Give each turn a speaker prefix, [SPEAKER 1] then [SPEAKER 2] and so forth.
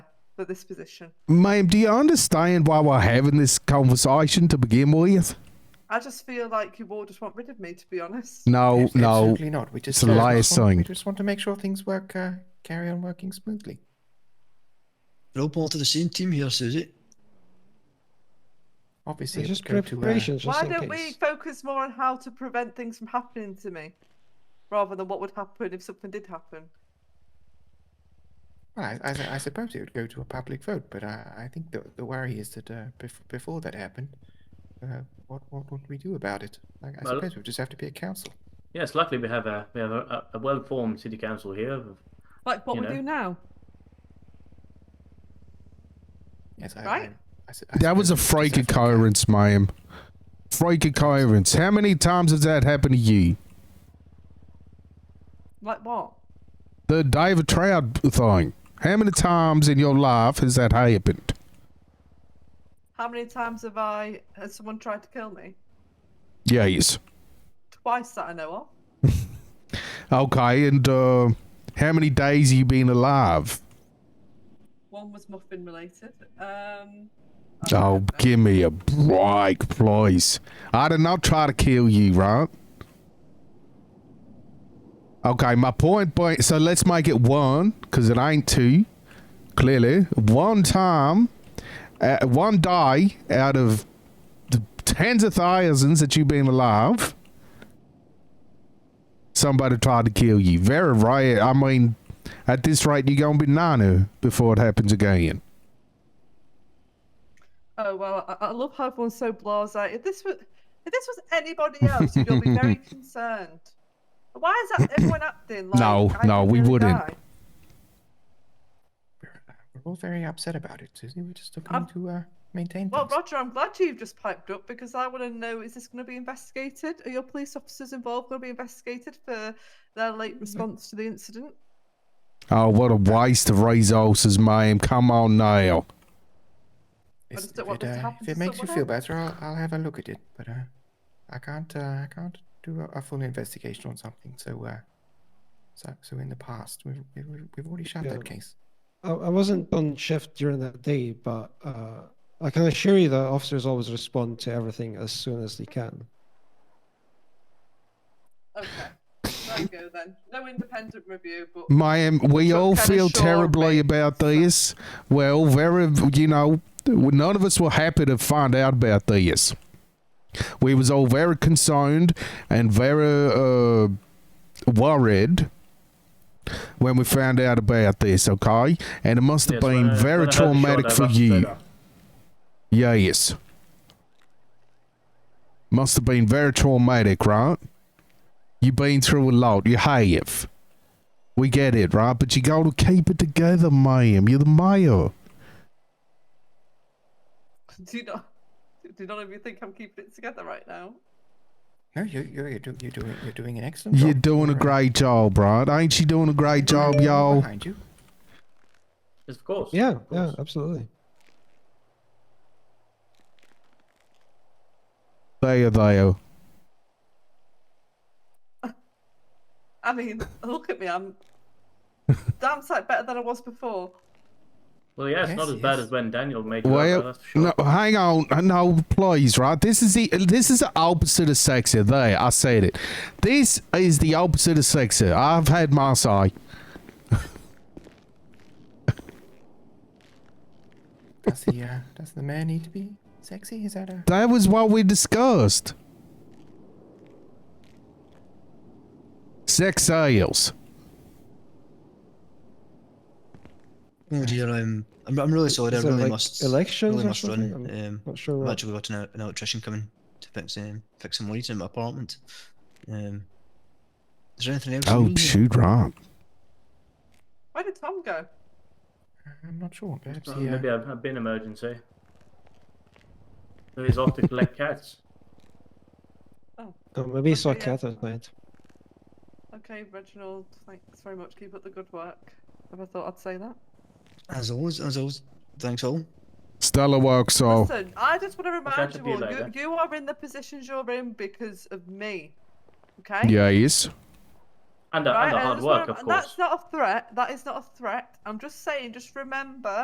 [SPEAKER 1] for this position.
[SPEAKER 2] Ma'am, do you understand why we're having this conversation to begin with?
[SPEAKER 1] I just feel like you all just want rid of me, to be honest.
[SPEAKER 2] No,
[SPEAKER 3] Abs-
[SPEAKER 2] no.
[SPEAKER 3] Absolutely not. We just,
[SPEAKER 2] It's a
[SPEAKER 3] uh,
[SPEAKER 2] liar
[SPEAKER 3] just want, we
[SPEAKER 2] sign.
[SPEAKER 3] just want to make sure things work, uh, carry on working smoothly.
[SPEAKER 4] We're all part of the same team here, Susie.
[SPEAKER 3] Obviously,
[SPEAKER 5] It's
[SPEAKER 3] it
[SPEAKER 5] just
[SPEAKER 3] would go to, uh,
[SPEAKER 5] preparations, just
[SPEAKER 1] Why
[SPEAKER 5] in
[SPEAKER 1] don't we
[SPEAKER 5] case.
[SPEAKER 1] focus more on how to prevent things from happening to me, rather than what would happen if something did happen?
[SPEAKER 3] well, I, I, su- I suppose it would go to a public vote, but I, I think the, the worry is that uh, bef- before that happened, uh, what, what would we do about it? Like, I
[SPEAKER 6] Well-
[SPEAKER 3] suppose we just have to be a council.
[SPEAKER 6] Yes, luckily we have a we have a, a well-formed city council here. of-
[SPEAKER 1] Like what
[SPEAKER 6] You
[SPEAKER 1] we
[SPEAKER 6] know.
[SPEAKER 1] do now.
[SPEAKER 3] Yes, I,
[SPEAKER 1] Right.
[SPEAKER 3] I- I su- I
[SPEAKER 2] That was a
[SPEAKER 3] suppose we just
[SPEAKER 2] freak
[SPEAKER 3] have to be council.
[SPEAKER 2] occurrence, ma'am. Freak occurrence. How many times has that happened to you?
[SPEAKER 1] Like what?
[SPEAKER 2] The David Trout thing. How many times in your life has that happened?
[SPEAKER 1] How many times have I has someone tried to kill me?
[SPEAKER 2] Yes.
[SPEAKER 1] Twice that I know of.
[SPEAKER 2] Okay, and uh, how many days have you been alive?
[SPEAKER 1] One was muffin related. Um. I don't
[SPEAKER 2] Oh,
[SPEAKER 1] know.
[SPEAKER 2] give me a break, please. I did not try to kill you, right? Okay, my point, boy. So let's make it one, because it ain't two. Clearly, one time, uh, one day out of the tens of thousands that you've been alive, somebody tried to kill you. Very rare. I mean, at this rate, you're gonna be nana before it happens again.
[SPEAKER 1] Oh well, I, I love how everyone's so blasé. If this was, if this was anybody else, you'd all be very concerned. Why is that everyone acting like?
[SPEAKER 2] No,
[SPEAKER 1] I
[SPEAKER 2] no,
[SPEAKER 1] could
[SPEAKER 2] we
[SPEAKER 1] really
[SPEAKER 2] wouldn't.
[SPEAKER 1] die?
[SPEAKER 3] We're, uh, we're all very upset about it, Susie. We're just looking
[SPEAKER 1] I'm-
[SPEAKER 3] to uh, maintain
[SPEAKER 1] Well,
[SPEAKER 3] things.
[SPEAKER 1] Roger, I'm glad you've just piped up because I want to know: is this going to be investigated? Are your police officers involved going to be investigated for their late
[SPEAKER 2] Mm-hmm.
[SPEAKER 1] response to the incident?
[SPEAKER 2] Oh, what a waste of resources, ma'am. Come on now.
[SPEAKER 3] It's-
[SPEAKER 1] just don't
[SPEAKER 3] if
[SPEAKER 1] want
[SPEAKER 3] it,
[SPEAKER 1] this to
[SPEAKER 3] uh,
[SPEAKER 1] happen
[SPEAKER 3] If it
[SPEAKER 1] to
[SPEAKER 3] makes you
[SPEAKER 1] someone
[SPEAKER 3] feel better, I'll, I'll have a look at it. But uh, I can't. Uh, I can't do a, a full investigation on something. So, uh, so, so in the past, we've we've, we've already shut that
[SPEAKER 5] Yeah.
[SPEAKER 3] case.
[SPEAKER 5] I, I wasn't on shift during that day, but uh, I can assure you that officers always respond to everything as soon as they can.
[SPEAKER 1] Okay, there you go then. No independent review, but
[SPEAKER 2] Ma'am, we
[SPEAKER 1] Took
[SPEAKER 2] all
[SPEAKER 1] kinda
[SPEAKER 2] feel
[SPEAKER 1] short,
[SPEAKER 2] terribly
[SPEAKER 1] mate.
[SPEAKER 2] about this. Well, very, you know, none of us were happy to find out about this. We was all very concerned and very uh, worried when we found out about this, okay? And it must have
[SPEAKER 6] yes, when
[SPEAKER 2] been
[SPEAKER 6] I-
[SPEAKER 2] very
[SPEAKER 6] when I heard the shot,
[SPEAKER 2] traumatic
[SPEAKER 6] I
[SPEAKER 2] for
[SPEAKER 6] rushed straight
[SPEAKER 2] you.
[SPEAKER 6] up.
[SPEAKER 2] Yes. Must have been very traumatic, right? You've been through a lot. You have. We get it, right? But you got to keep it together, ma'am. You're the mayor.
[SPEAKER 1] do not, do not even think I'm keeping it together right now.
[SPEAKER 3] No, you you you're, do, you're doing you're doing an excellent.
[SPEAKER 2] You're
[SPEAKER 3] job.
[SPEAKER 2] doing a
[SPEAKER 3] We're, uh,
[SPEAKER 2] great job, right? Ain't she doing a great job,
[SPEAKER 3] we're
[SPEAKER 2] y'all?
[SPEAKER 3] Behind you.
[SPEAKER 6] Yes, of course.
[SPEAKER 5] Yeah,
[SPEAKER 6] of
[SPEAKER 5] yeah,
[SPEAKER 6] course.
[SPEAKER 5] absolutely.
[SPEAKER 2] There, there.
[SPEAKER 1] I mean, look at me. I'm damn sight better than I was before.
[SPEAKER 6] Well, yeah, it's
[SPEAKER 3] Yes,
[SPEAKER 6] not as bad
[SPEAKER 3] yes.
[SPEAKER 6] as when Daniel made it. over,
[SPEAKER 2] Well,
[SPEAKER 6] that's for sure.
[SPEAKER 2] no, hang on, Uh, no, please, right? This is the this is the opposite of sexy. There, I said it. This is the opposite of sexy. I've had my say.
[SPEAKER 3] Does the uh, does the man need to be sexy? Is that a
[SPEAKER 2] That was what we discussed. Sex sales.
[SPEAKER 4] Oh dear, I'm I'm, I'm really sorry. I
[SPEAKER 5] Is it
[SPEAKER 4] really
[SPEAKER 5] like
[SPEAKER 4] must
[SPEAKER 5] elections
[SPEAKER 4] really
[SPEAKER 5] or
[SPEAKER 4] must
[SPEAKER 5] something?
[SPEAKER 4] run.
[SPEAKER 5] I'm
[SPEAKER 4] Um,
[SPEAKER 5] Not sure.
[SPEAKER 4] I've
[SPEAKER 5] What...
[SPEAKER 4] actually got an, an electrician coming to fix um fix some lights in my apartment. Um, is there anything else? you
[SPEAKER 2] Oh
[SPEAKER 4] need?
[SPEAKER 2] shoot, right.
[SPEAKER 1] Where did Tom go?
[SPEAKER 3] I'm not sure. Perhaps
[SPEAKER 6] Well,
[SPEAKER 3] the, uh,
[SPEAKER 6] Maybe a, a bin emergency. So he's off to collect cats.
[SPEAKER 5] Oh, maybe he saw a
[SPEAKER 1] Okay, yeah.
[SPEAKER 5] cat at night.
[SPEAKER 1] Okay, Reginald, thanks very much. Keep up the good work. Never thought I'd say that.
[SPEAKER 4] As always, as always, thanks all.
[SPEAKER 2] Stella works so
[SPEAKER 1] Listen, I just want to remind
[SPEAKER 6] catch up
[SPEAKER 1] you
[SPEAKER 6] with
[SPEAKER 1] all,
[SPEAKER 6] you
[SPEAKER 1] you,
[SPEAKER 6] later.
[SPEAKER 1] you are in the positions you're in because of me. Okay?
[SPEAKER 2] yes.
[SPEAKER 6] And a,
[SPEAKER 1] Right?
[SPEAKER 6] and a
[SPEAKER 1] I
[SPEAKER 6] hard
[SPEAKER 1] just wanna-
[SPEAKER 6] work, of
[SPEAKER 1] and
[SPEAKER 6] course.
[SPEAKER 1] That's not a threat. That is not a threat. I'm just saying, just remember